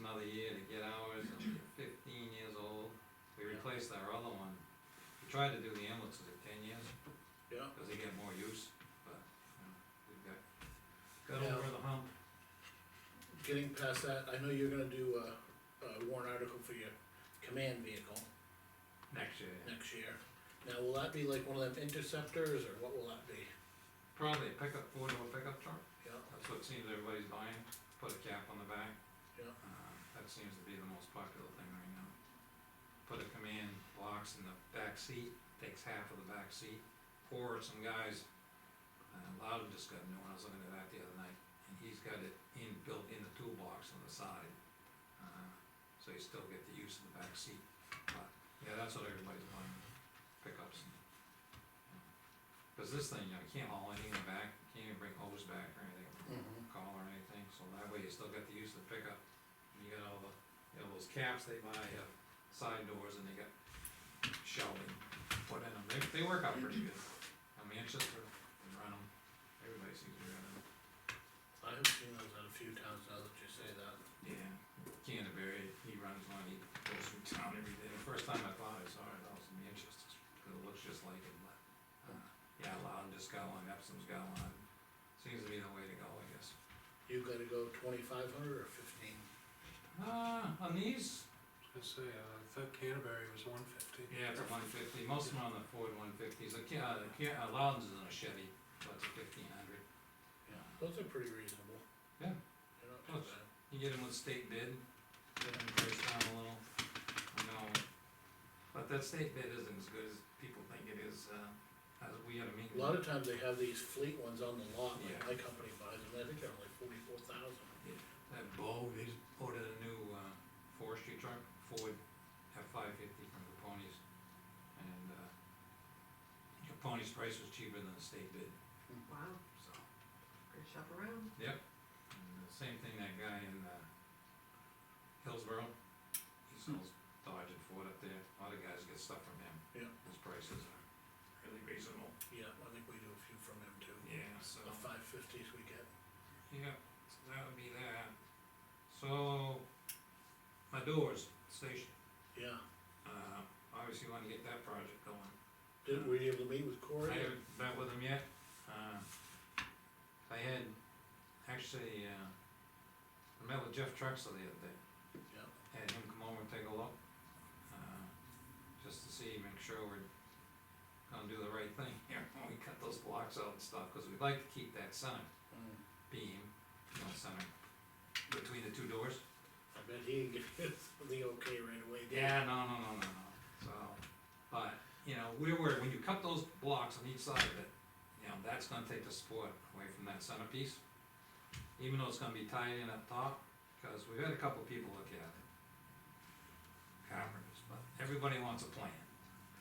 another year to get ours, and we're fifteen years old. We replaced our other one. We tried to do the ambulance at ten years, Yeah, cause they get more use, but, you know, we got, got Yeah. over the hump. getting past that, I know you're gonna do a, a warrant article for your command vehicle Next year. next year. Now, will that be like one of them interceptors, or what will that be? Probably a pickup, four-door pickup truck. Yeah, That's what seems everybody's buying, put a cap on the back. Yeah. Uh, That seems to be the most popular thing right now. Put a command box in the back seat, takes half of the back seat, or some guys, uh, Loudon just got a new one, I was looking at that the other night, and he's got it in, built in the toolbox on the side. uh, So you still get the use of the back seat, but, yeah, that's what everybody's buying, pickups. and- Cause this thing, you know, you can't haul anything in the back, you can't even bring hose back or anything call or anything, so that way you still got the use of the pickup. And You got all the, you know, those caps they buy, have side doors and they got shelving put in them, they, they work out pretty good. Uh, Manchester, they run them, everybody seems to run them. I have seen those at a few towns now that you say that. Yeah. Canterbury, he runs one, he goes through town every day, the first time I thought I saw it, I was in Manchester, 'cause it looks just like him, but, uh, yeah, Loudon just got one, Epsom's got one, seems to be the way to go, I guess. You gotta go twenty-five hundred or fifteen? Uh, on these, I was gonna say, uh, I thought Canterbury was one fifty. Yeah, it's a one fifty, most of them are on the Ford one fifties, like, yeah, the Ca- uh, Loudon's is on a Chevy, but it's fifteen hundred. Those are pretty reasonable. Yeah. They're not too Close. You get them with state bid, get them priced down a little, you know, but that state bid isn't as good as people think it is, uh, as we had a meeting. bad. A lot of times they have these fleet ones on the lot, like Yeah. my company buys them, I think they're only forty-four thousand. That Bo, they just ordered a new, uh, forestry truck, Ford F five fifty from Caponi's, and, uh, Caponi's price was cheaper than the state bid, Wow, so. good shop around. And the Same thing, that guy in, uh, Hillsborough, he sells Dodge and Ford up there, a lot of guys get stuff from him. Yeah. His prices are really reasonable. Yeah, I think we do a few from them too. Yeah, so, The five fifties we get. yeah, so that would be that. So, my doors, station, Yeah, uh, obviously wanna get that project going. did, were you able to meet with Corey? I haven't met with him yet, uh, I had, actually, uh, I met with Jeff Trexler the other day. Yeah, had him come over and take a look, uh, just to see, make sure we're gonna do the right thing here when we cut those blocks out and stuff, cause we'd like to keep that center Mm, beam, you know, center between the two doors. I bet he didn't give you the okay right away. did he? Yeah, no, no, no, no, no, so, but, you know, we were, when you cut those blocks on each side of it, you know, that's gonna take the support away from that centerpiece. Even though it's gonna be tied in up top, cause we've had a couple people look at it. Carpenters, but everybody wants a plan,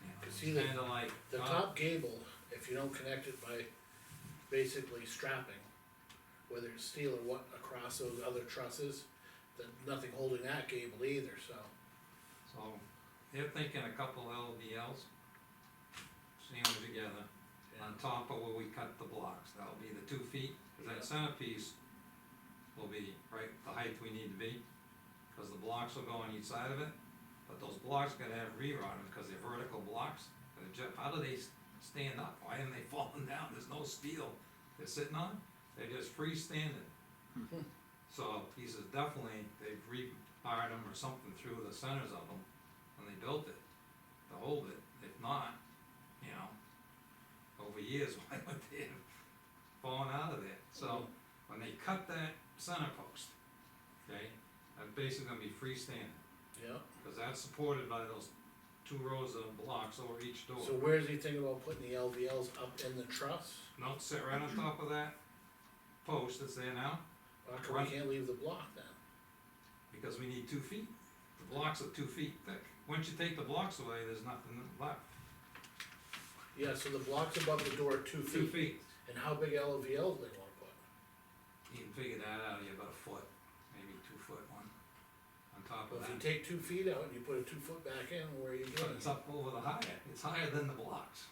you know, Cause it's see the- kinda like, The uh, top gable, if you don't connect it by basically strapping, whether it's steel or what, across those other trusses, then nothing holding that gable either, so. So, they're thinking a couple LVLs, seam them together, on top of where we cut the blocks, that'll be the two feet, 'cause that centerpiece will be right the height we need to be, cause the blocks will go on each side of it, but those blocks gotta have rear on them, cause they're vertical blocks, They're ju- how do they s- stand up, why aren't they falling down, there's no steel they're sitting on, they're just freestanding. So, he says definitely, they've rewired them or something through the centers of them, when they built it, to hold it, if not, you know, over years, why would they have fallen out of there? Mm-hmm. So, when they cut that center post, okay, that's basically gonna be freestanding, Yeah, cause that's supported by those two rows of blocks over each door. so where's he thinking about putting the LVLs up in the truss? No, sit right on top of that post that's there now, How come Right. we can't leave the block then? because we need two feet. The blocks are two feet thick. Once you take the blocks away, there's nothing left. Yeah, so the block's above the door two Two feet, feet. and how big LVLs they wanna put? You can figure that out, you about a foot, maybe two foot one, on top of Well, If you that. take two feet out and you put a two foot back in, where are you But doing? it's up over the higher, it's higher than the blocks.